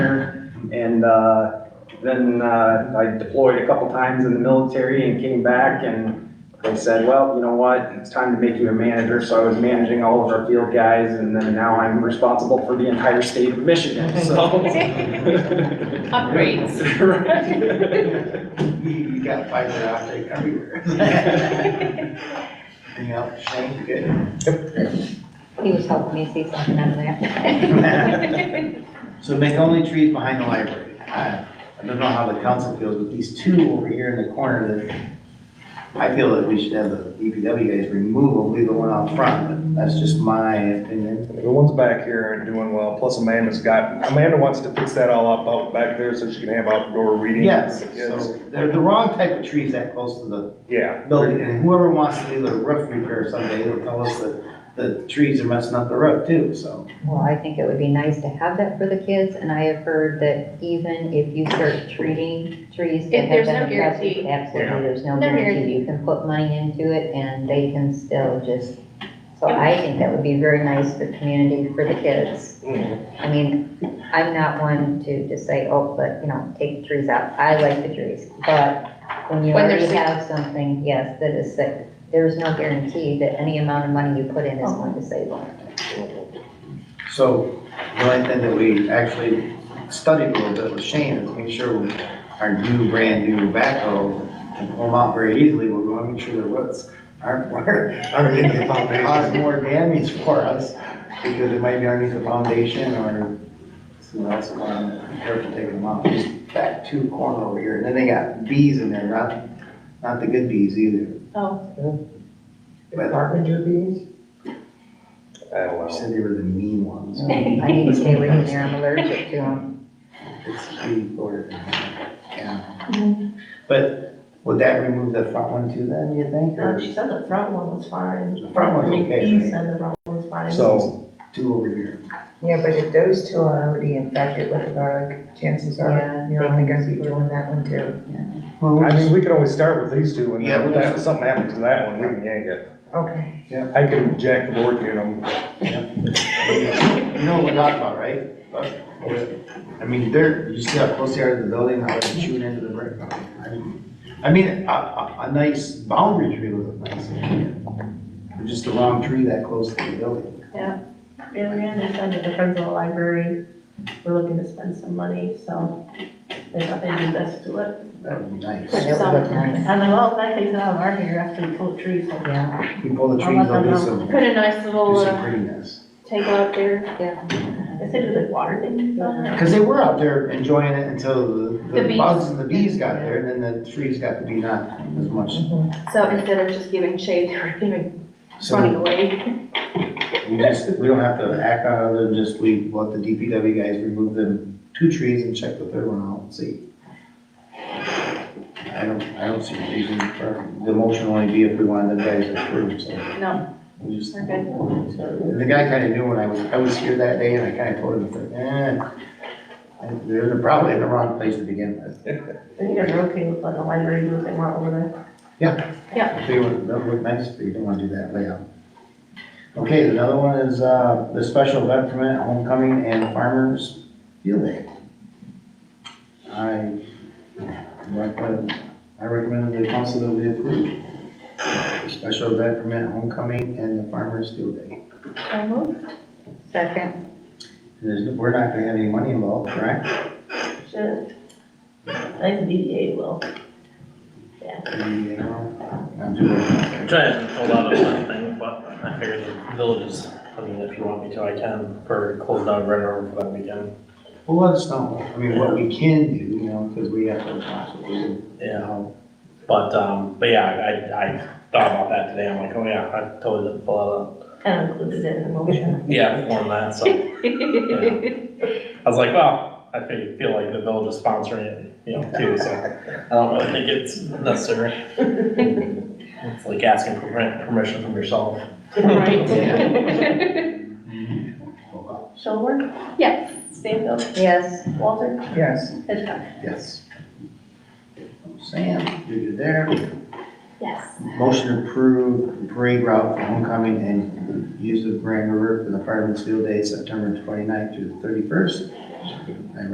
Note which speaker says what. Speaker 1: And, uh, then, uh, I deployed a couple times in the military and came back and they said, well, you know what, it's time to make you a manager. So I was managing all of our field guys and then now I'm responsible for the entire state of Michigan, so.
Speaker 2: Upgrades.
Speaker 1: Right.
Speaker 3: You got fiber optic everywhere. Anything else, Shane, you good?
Speaker 4: He was helping me see something out of that.
Speaker 3: So make only trees behind the library. I I don't know how the council feels, but these two over here in the corner that I feel that we should have the DPW guys remove them, leave the one out front, but that's just my opinion.
Speaker 5: The ones back here are doing well, plus Amanda's got, Amanda wants to fix that all up out back there so she can have outdoor reading.
Speaker 3: Yes,
Speaker 5: for the kids.
Speaker 3: so they're the wrong type of trees that close to the
Speaker 5: Yeah,
Speaker 3: building, and whoever wants to do the roof repair someday, they'll tell us that the trees are messing up the roof too, so.
Speaker 4: Well, I think it would be nice to have that for the kids, and I have heard that even if you start treating trees that
Speaker 2: If
Speaker 4: have
Speaker 2: there's
Speaker 4: been
Speaker 2: no
Speaker 4: affected,
Speaker 2: guarantee.
Speaker 4: absolutely,
Speaker 5: Yeah.
Speaker 4: there's no
Speaker 2: No
Speaker 4: guarantee.
Speaker 2: guarantee.
Speaker 4: You can put money into it and they can still just, so I think that would be very nice for community, for the kids.
Speaker 5: Mhm.
Speaker 4: I mean, I'm not one to just say, oh, but, you know, take the trees out. I like the trees, but when you
Speaker 2: When they're
Speaker 4: already
Speaker 2: sick.
Speaker 4: have something, yes, that is sick, there's no guarantee that any amount of money you put in
Speaker 2: Oh.
Speaker 4: is going to save them.
Speaker 3: So the only thing that we actually studied a little bit with Shane is make sure with our new, brand new backhoe can pull them out very easily. We want to make sure the roots aren't, aren't in the foundation, cause more damage for us because it might be underneath the foundation or someone else will want to be careful taking them out. Just back two corner over here. And then they got bees in there, not, not the good bees either.
Speaker 2: Oh,
Speaker 3: But
Speaker 6: Carpenter bees?
Speaker 5: I don't
Speaker 3: you
Speaker 5: know.
Speaker 3: said they were the mean ones.
Speaker 4: I need to stay away from there, I'm allergic to them.
Speaker 3: It's pretty important, yeah. But would that remove the front one too then, you think,
Speaker 6: No,
Speaker 3: or
Speaker 6: she said the front one was fine.
Speaker 3: The front one's
Speaker 6: I mean,
Speaker 3: okay,
Speaker 6: He
Speaker 3: right?
Speaker 6: said the front one was fine.
Speaker 5: So,
Speaker 3: two over here?
Speaker 7: Yeah, but if those two are already infected with the garlic, chances
Speaker 4: Yeah,
Speaker 7: are, you're only gonna be doing that one too.
Speaker 5: I mean, we could always start with these two and
Speaker 3: Yeah,
Speaker 5: then
Speaker 3: we'll
Speaker 5: if something happens to that one, we can yank it.
Speaker 7: Okay.
Speaker 5: I can jack the board, you know,
Speaker 3: You know what we're talking about, right? But, I mean, they're, you see how close they are to the building, how they're chewing into the brick. I mean- I mean, a, a, a nice boundary tree would look nice. But Just a long tree that close to the building.
Speaker 6: Marianne had said that the friends of the library were looking to spend some money, so they thought they'd do this to it.
Speaker 3: That would be nice.
Speaker 4: That would look nice.
Speaker 6: I'm like, well, if that takes it out of our hair after we pull the trees, so
Speaker 4: Yeah,
Speaker 3: You pull the
Speaker 6: I'll let
Speaker 3: trees, they'll
Speaker 6: them
Speaker 3: do
Speaker 6: know.
Speaker 3: some,
Speaker 2: put a nice
Speaker 3: do
Speaker 2: little
Speaker 3: some
Speaker 2: uh,
Speaker 3: prettiness.
Speaker 2: table out there.
Speaker 4: yeah.
Speaker 6: I said, do like water things on it.
Speaker 3: Because they were out there enjoying it until the,
Speaker 2: The
Speaker 3: the
Speaker 2: bees.
Speaker 3: bugs and the bees got there, and then the trees got to be not as much.
Speaker 2: So instead of just giving shade, they were giving running
Speaker 3: So
Speaker 2: away.
Speaker 3: we just, we don't have to act on it, other than just we let the DPW guys remove them two trees and check the third one out and see. I don't, I don't see a reason for, the motion only be if we wanted the guys to approve, so
Speaker 2: No,
Speaker 3: we just.
Speaker 2: we're good.
Speaker 3: And The guy kinda knew when I was, I was here that day, and I kinda told him, eh, they're probably in the wrong place to begin with.
Speaker 6: And you guys are okay with letting the library do what they want over there.
Speaker 3: If they would, that would look nice, but you don't wanna do that layout. Okay, another one is, uh, the special event permit, homecoming and farmers field day. I recommend, I recommend the council that we approve. the Special event permit, homecoming and the farmers field day.
Speaker 6: I move.
Speaker 4: Second,
Speaker 3: There's, we're not gonna have any money involved, correct?
Speaker 6: Should. I think the DDA will.
Speaker 3: You know, I'm doing-
Speaker 8: Which I haven't pulled out on that thing, but I figured the village is, I mean, if you want me to, I can, for closed down right over for that weekend.
Speaker 3: Well, let us know, I mean, what we can do, you know, cause we have to possibly, you
Speaker 8: Yeah,
Speaker 3: know,
Speaker 8: but, um, but yeah, I, I thought about that today, I'm like, oh yeah, I totally didn't pull out
Speaker 6: Kind of included it in the motion.
Speaker 8: a, yeah, form that, so. yeah. I was like, well, I feel, feel like the village is sponsoring it, you know, too, so I don't really think it's necessary. It's like asking for permit- permission from yourself.
Speaker 2: Right.
Speaker 6: Shelburne,
Speaker 2: Yes.
Speaker 6: Stanfield,
Speaker 4: yes.
Speaker 6: Walter,
Speaker 7: Yes.
Speaker 6: Hitchcock.
Speaker 3: Yes. Sam, you're there.
Speaker 2: Yes.
Speaker 3: Motion to approve parade route for homecoming and use of Grand River for the firemen's field day, September 29th through the thirty-first.